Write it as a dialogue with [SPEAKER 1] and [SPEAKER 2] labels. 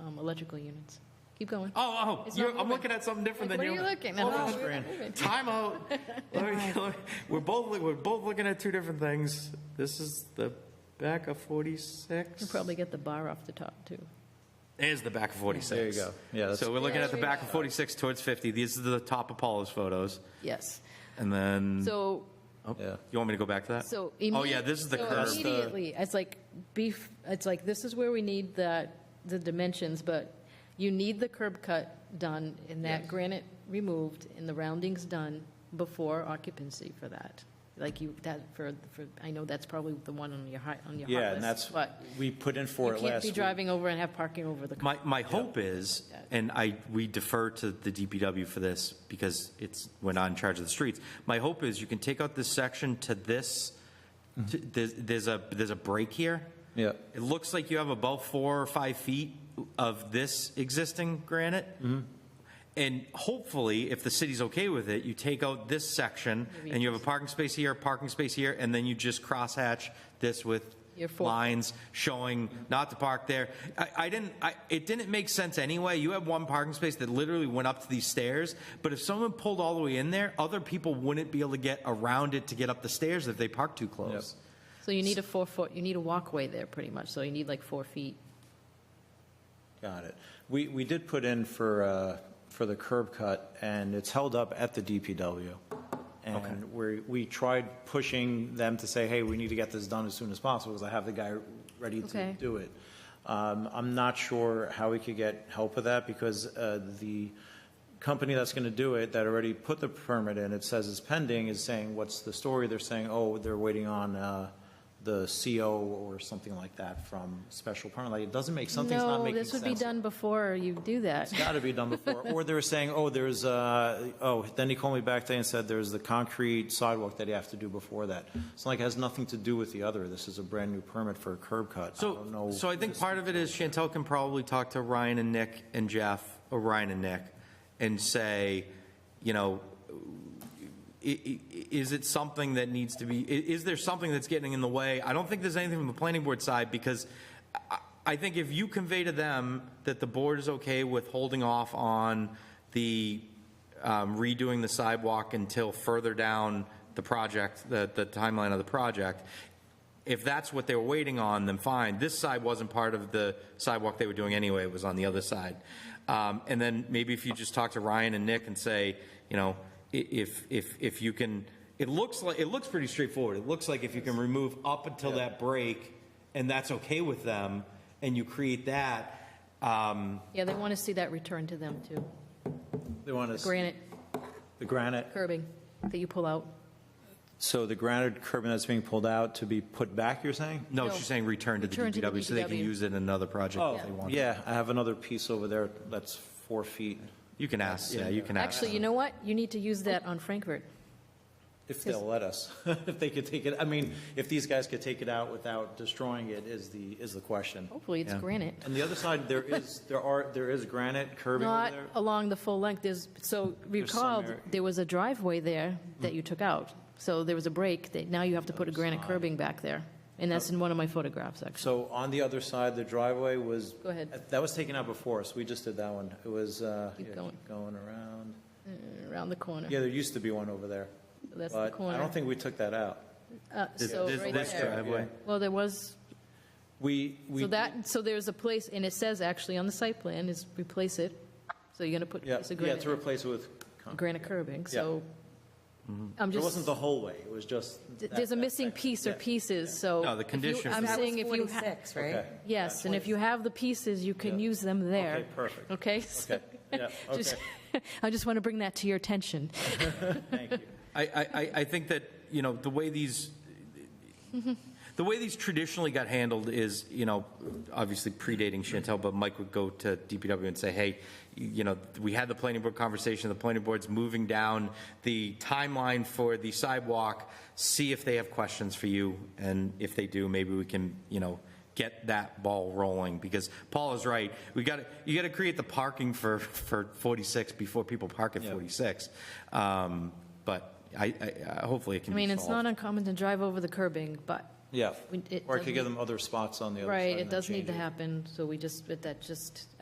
[SPEAKER 1] um, electrical units. Keep going.
[SPEAKER 2] Oh, oh,
[SPEAKER 1] It's
[SPEAKER 2] you're,
[SPEAKER 1] not
[SPEAKER 2] I'm
[SPEAKER 1] moving.
[SPEAKER 2] looking at something different
[SPEAKER 1] Like,
[SPEAKER 2] than
[SPEAKER 1] what
[SPEAKER 2] you.
[SPEAKER 1] are you looking at?
[SPEAKER 2] Hold
[SPEAKER 1] Oh,
[SPEAKER 2] on,
[SPEAKER 1] we're
[SPEAKER 2] Fran.
[SPEAKER 1] moving.
[SPEAKER 2] Time out. Let me- let me- we're both look- we're both looking at two different things. This is the back of 46.
[SPEAKER 1] You'll probably get the bar off the top too.
[SPEAKER 2] is the back of 46.
[SPEAKER 3] There you go. Yeah, that's-
[SPEAKER 2] So we're looking
[SPEAKER 1] Yeah,
[SPEAKER 2] at the
[SPEAKER 1] there you
[SPEAKER 2] back of 46 towards 50. These are the top of Paula's photos,
[SPEAKER 1] Yes.
[SPEAKER 2] and then
[SPEAKER 1] So
[SPEAKER 2] oh,
[SPEAKER 3] Yeah.
[SPEAKER 2] you want me to go back to that?
[SPEAKER 1] so.
[SPEAKER 2] oh
[SPEAKER 1] immedi-
[SPEAKER 2] yeah, this is the
[SPEAKER 1] so
[SPEAKER 2] curve.
[SPEAKER 1] Immediately, it's like beef. It's like this is where we need the the dimensions, but you need the curb cut done and that granite removed and the roundings done before occupancy for that. Like you that for for I know that's probably the one on your high on your
[SPEAKER 3] Yeah,
[SPEAKER 1] hot
[SPEAKER 3] and that's,
[SPEAKER 1] list, but
[SPEAKER 3] we put in
[SPEAKER 1] you
[SPEAKER 3] for it
[SPEAKER 1] can't
[SPEAKER 3] last
[SPEAKER 1] be
[SPEAKER 3] week.
[SPEAKER 1] driving over and have parking over the.
[SPEAKER 2] My, my hope is, and I, we defer to the DPW for this because it's, we're not in charge of the streets. My hope is you can take out this section to this, to- there's, there's a, there's a break here.
[SPEAKER 3] Yeah.
[SPEAKER 2] It looks like you have about four or five feet of this existing granite. And hopefully, if the city's okay with it, you take out this section and you have a parking space here, a parking space here, and then you just crosshatch this with
[SPEAKER 1] Your four-
[SPEAKER 2] lines showing not to park there. I, I didn't, I, it didn't make sense anyway. You have one parking space that literally went up to these stairs, but if someone pulled all the way in there, other people wouldn't be able to get around it to get up the stairs if they parked too close.
[SPEAKER 1] So you need a four foot. You need a walkway there, pretty much. So you need like four feet.
[SPEAKER 3] Got it. We, we did put in for, uh, for the curb cut, and it's held up at the DPW. And we, we tried pushing them to say, hey, we need to get this done as soon as possible, because I have the guy ready to
[SPEAKER 1] Okay.
[SPEAKER 3] do it. Um, I'm not sure how we could get help with that, because uh, the company that's going to do it, that already put the permit in, it says it's pending, is saying, what's the story? They're saying, oh, they're waiting on uh, the CO or something like that from special permit. Like, it doesn't make, something's not
[SPEAKER 1] No,
[SPEAKER 3] making
[SPEAKER 1] this
[SPEAKER 3] sense.
[SPEAKER 1] would be done before you do that.
[SPEAKER 3] It's got to be done before. Or they were saying, oh, there's, uh, oh, then he called me back today and said there's the concrete sidewalk that you have to do before that. So like, it has nothing to do with the other. This is a brand-new permit for a curb cut. I don't
[SPEAKER 2] So,
[SPEAKER 3] know.
[SPEAKER 2] so I think part of it is Chantel can probably talk to Ryan and Nick and Jeff, or Ryan and Nick, and say, you know, i- i- is it something that needs to be, i- is there something that's getting in the way? I don't think there's anything from the planning board side, because I- I think if you convey to them that the board is okay with holding off on the um, redoing the sidewalk until further down the project, the, the timeline of the project, if that's what they were waiting on, then fine. This side wasn't part of the sidewalk they were doing anyway, it was on the other side. Um, And then maybe if you just talk to Ryan and Nick and say, you know, i- if, if, if you can, it looks like, it looks pretty straightforward. It looks like if you can remove up until that break, and that's okay with them, and you create that, um,
[SPEAKER 1] Yeah, they want to see that return to them too.
[SPEAKER 3] They want us,
[SPEAKER 1] Granite
[SPEAKER 3] the granite,
[SPEAKER 1] curbing that you pull out.
[SPEAKER 3] so the granite curbing that's being pulled out to be put back, you're saying?
[SPEAKER 2] no,
[SPEAKER 1] No.
[SPEAKER 2] she's saying return to the
[SPEAKER 1] Return to the
[SPEAKER 2] DPW, so they can
[SPEAKER 1] DPW.
[SPEAKER 2] use it in another project
[SPEAKER 1] Oh.
[SPEAKER 2] if they want.
[SPEAKER 3] Yeah, I have another piece over there that's four feet,
[SPEAKER 2] You can ask, yeah, you can ask.
[SPEAKER 1] Actually, you know what? You need to use that on Frankfurt.
[SPEAKER 3] if they'll let us, if they could take it. I mean, if these guys could take it out without destroying it is the, is the question.
[SPEAKER 1] Hopefully, it's
[SPEAKER 2] Yeah.
[SPEAKER 1] granite.
[SPEAKER 3] And the other side, there is, there are, there is granite curbing over
[SPEAKER 1] Not
[SPEAKER 3] there.
[SPEAKER 1] along the full length. There's, so
[SPEAKER 3] some
[SPEAKER 1] recall,
[SPEAKER 3] area- Mm.
[SPEAKER 1] there was a driveway there that you took out. So there was a break that now you have to put a granite curbing back there. And that's in one of my photographs, actually.
[SPEAKER 3] So on the other side, the driveway was. uh,
[SPEAKER 1] Go ahead.
[SPEAKER 3] That was taken out before us. We just did that one. It was, uh,
[SPEAKER 1] Keep
[SPEAKER 3] yeah,
[SPEAKER 1] going.
[SPEAKER 3] Going around.
[SPEAKER 1] Around the corner.
[SPEAKER 3] Yeah, there used to be one over there.
[SPEAKER 1] That's the
[SPEAKER 3] but I
[SPEAKER 1] corner.
[SPEAKER 3] don't think we took that out.
[SPEAKER 1] Uh,
[SPEAKER 2] This-
[SPEAKER 1] So
[SPEAKER 2] this-
[SPEAKER 1] right
[SPEAKER 2] this
[SPEAKER 1] there.
[SPEAKER 2] driveway.
[SPEAKER 1] Well, there was,
[SPEAKER 3] We, we.
[SPEAKER 1] so that, so there's a place, and it says actually on the site plan is replace it. So you're going to put a
[SPEAKER 3] Yeah,
[SPEAKER 1] piece of
[SPEAKER 3] yeah,
[SPEAKER 1] granite.
[SPEAKER 3] to replace it with concrete.
[SPEAKER 1] granite curbing, so I'm
[SPEAKER 3] It
[SPEAKER 1] just,
[SPEAKER 3] Mm-hmm. wasn't the whole way. It was just.
[SPEAKER 1] th-
[SPEAKER 3] that-
[SPEAKER 1] there's a
[SPEAKER 3] that
[SPEAKER 1] missing
[SPEAKER 3] section.
[SPEAKER 1] piece or
[SPEAKER 3] Yeah.
[SPEAKER 1] pieces, so.
[SPEAKER 2] No, the
[SPEAKER 1] if you-
[SPEAKER 2] condition
[SPEAKER 1] I'm
[SPEAKER 2] for- That
[SPEAKER 1] saying if you, ha-
[SPEAKER 4] Forty-six, right?
[SPEAKER 3] Okay.
[SPEAKER 1] yes, and if you have the pieces, you can
[SPEAKER 3] Yeah.
[SPEAKER 1] use them there.
[SPEAKER 3] Okay, perfect.
[SPEAKER 1] Okay? so-
[SPEAKER 3] Okay, yeah,
[SPEAKER 1] just- I just want to bring that to your attention.
[SPEAKER 3] Thank you.
[SPEAKER 2] I, I, I- I think that, you know, the way these, the way these traditionally got handled is, you know, obviously predating Chantel, but Mike would go to DPW and say, hey, you know, we had the planning board conversation, the planning board's moving down the timeline for the sidewalk, see if they have questions for you, and if they do, maybe we can, you know, get that ball rolling, because Paul is right, we got, to you got to create the parking for, for 46 before people park at 46. Um, But I, I, I- hopefully it
[SPEAKER 1] I
[SPEAKER 2] can be
[SPEAKER 1] mean, it's
[SPEAKER 2] solved.
[SPEAKER 1] not uncommon to drive over the curbing, but,
[SPEAKER 3] Yeah.
[SPEAKER 1] We- it
[SPEAKER 3] Or I could
[SPEAKER 1] doesn't-
[SPEAKER 3] give them other spots on the other side.
[SPEAKER 1] right,
[SPEAKER 3] and
[SPEAKER 1] it
[SPEAKER 3] then
[SPEAKER 1] does need
[SPEAKER 3] change
[SPEAKER 1] to happen, so we just, but that just,